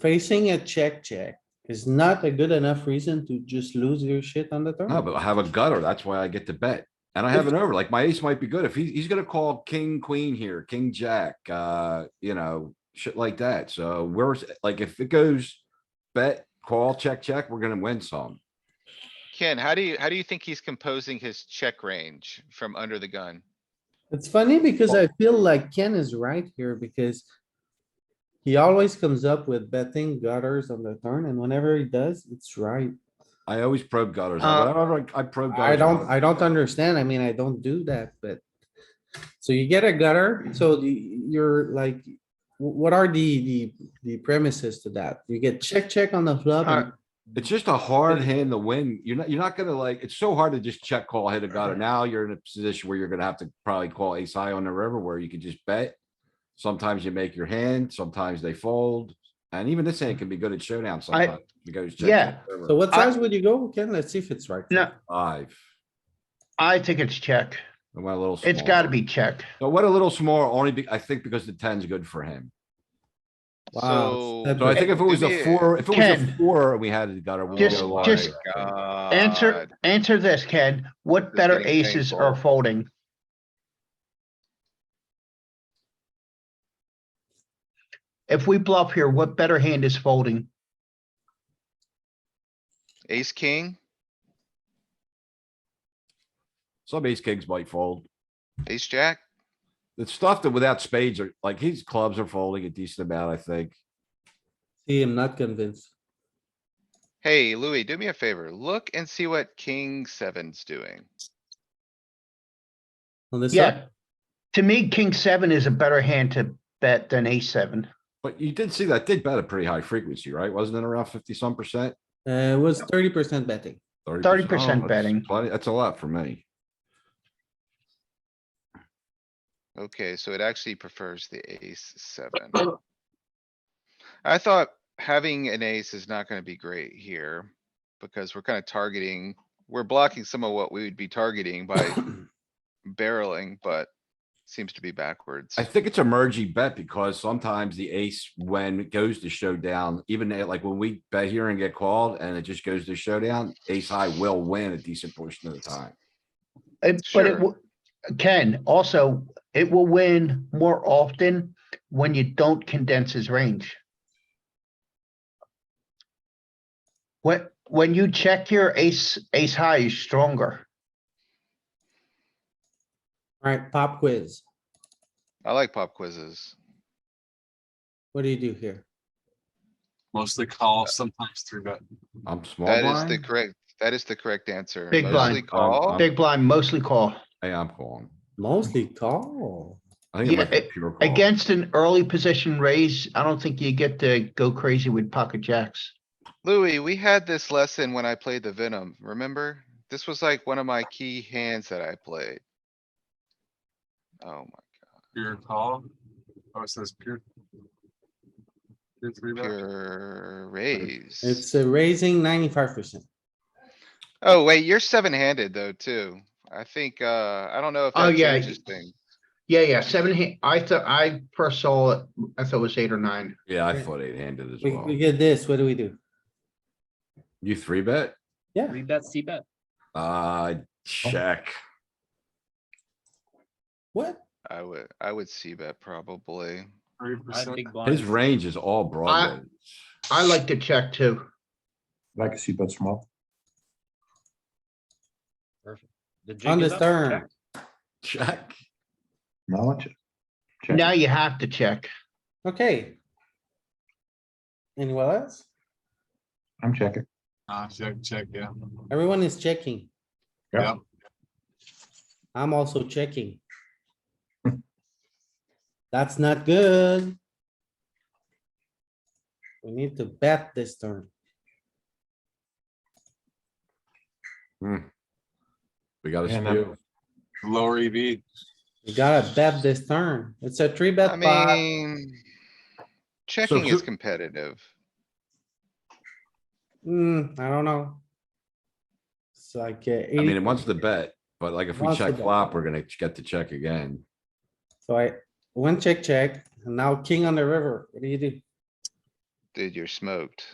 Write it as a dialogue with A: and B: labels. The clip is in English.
A: Facing a check, check is not a good enough reason to just lose your shit on the
B: No,
A: turn.
B: Ah, but I have a gutter. That's why I get to bet. And I have an over, like my ace might be good. If he, he's gonna call king, queen here, king, jack, uh, you know, shit like that. So we're, like, if it goes bet, call, check, check, we're gonna win some.
C: Ken, how do you, how do you think he's composing his check range from under the gun?
A: It's funny because I feel like Ken is right here because he always comes up with betting gutters on the turn and whenever he does, it's right.
B: I always probe gutters.
C: Uh,
B: Whatever I I probe.
A: I
B: gutters
A: don't,
B: on.
A: I don't understand. I mean, I don't do that, but. So you get a gutter, so the, you're like, wh- what are the, the, the premises to that? You get check, check on the flop.
B: Uh,
A: and-
B: It's just a hard hand to win. You're not, you're not gonna like, it's so hard to just check call, hit a gutter. Now you're in a position where you're gonna have to probably call ace high on the river where you can just bet. Sometimes you make your hand, sometimes they fold, and even this hand can be good at showdown sometimes. It goes check,
D: yeah.
B: check, river.
A: So what
D: I-
A: size would you go, Ken? Let's see if it's right.
D: No,
B: Five.
D: I think it's check.
B: I went a little.
D: It's
B: small.
D: gotta be check.
B: So what a little small, only be, I think because the ten's good for him.
A: Wow,
C: So.
A: it's
B: So I
A: Okay.
B: think if it was a
C: Yeah.
B: four, if it was a
D: Ken.
B: four, we had the gutter. we
D: Just-
B: go wide.
D: just- Answer,
C: God.
D: answer this, Ken. What
C: is
D: better
C: getting
D: aces are
C: painful.
D: folding? If we bluff here, what better hand is folding?
C: Ace, king,
B: Some ace kings might fold.
C: ace, jack.
B: The stuff that without spades are, like, his clubs are folding a decent amount, I think.
A: See, I'm not convinced.
C: Hey, Louis, do me a favor. Look and see what king seven's doing.
A: On this side,
D: Yeah. To me, king seven is a better hand to bet than ace seven.
B: But you did see that did bet a pretty high frequency, right? Wasn't it around fifty some percent?
A: uh, it was thirty percent betting.
D: 30%
B: Oh, that's
D: betting.
B: plenty- That's a lot for me.
C: Okay, so it actually prefers the ace seven. I thought having an ace is not gonna be great here. Because we're kinda targeting, we're blocking some of what we would be targeting by barreling, but seems to be backwards.
B: I think it's a mergey bet because sometimes the ace, when it goes to showdown, even at- like when we bet here and get called and it just goes to showdown, ace high will win a decent portion of the time.
D: It- Uh, But
C: Sure.
D: it, wo- Ken, also, it will win more often when you don't condense his range. When, when you check your ace, ace high is stronger.
A: Alright, pop quiz.
C: I like pop quizzes.
A: What do you do here?
E: Mostly call, sometimes three bet.
B: I'm small
C: That is the
B: blind.
C: correct, that is the correct answer.
D: Big blind.
C: Mostly
B: Um,
C: call.
B: um,
D: Big blind mostly call.
B: Hey, I'm calling.
A: Mostly call.
B: I think it
D: Yeah,
B: might be a
D: a-
B: pure call.
D: Against an early position raise, I don't think you get to go crazy with pocket jacks.
C: Louis, we had this lesson when I played the Venom, remember? This was like one of my key hands that I played. Oh
E: Pure call. Oh, it says pure. Pure three
C: my,
E: bet.
C: pure raise.
A: It's uh, raising ninety-five percent.
C: Oh, wait, you're seven handed though, too. I think, uh, I don't know if
D: Oh,
C: that
D: yeah,
C: changes things.
D: Yeah, yeah, seven, hand- I thought, I first saw it, I thought it was eight or nine.
B: Yeah, I thought eight handed as
A: uh, We,
B: well.
A: we get this, what do we do?
B: You three bet?
F: Three bet, C bet.
B: Uh,
A: Oh.
B: check.
A: What?
C: I would, I would see bet probably.
E: Three
F: I have
E: percent.
F: big
B: His
F: blinds.
B: range is all broad. range.
D: I like to check too.
G: Like a seat bet small.
F: The jig
A: On
F: is
A: the
F: up.
A: turn,
B: Check.
G: Now I check. Check.
D: Now you have to check.
A: okay. Anyone else?
G: I'm checking.
E: Ah, check, check, yeah.
A: Everyone is checking.
G: Yeah.
E: Yep.
A: I'm also checking. That's not good. We need to bet this turn.
B: We got a
G: Yeah, no.
B: spew.
E: Lower E EV.
A: We gotta bet this turn. It's a three
C: I
A: bet pot.
C: mean. Checking
B: who-
C: is competitive.
A: Hmm, I don't know. It's like. uh,
B: I mean, it wants to bet, but like if we
A: Wants to
B: check
A: bet.
B: flop, we're gonna get to check again.
A: So I went check, check, and now king on the river. What do you do?
C: Dude, you're smoked.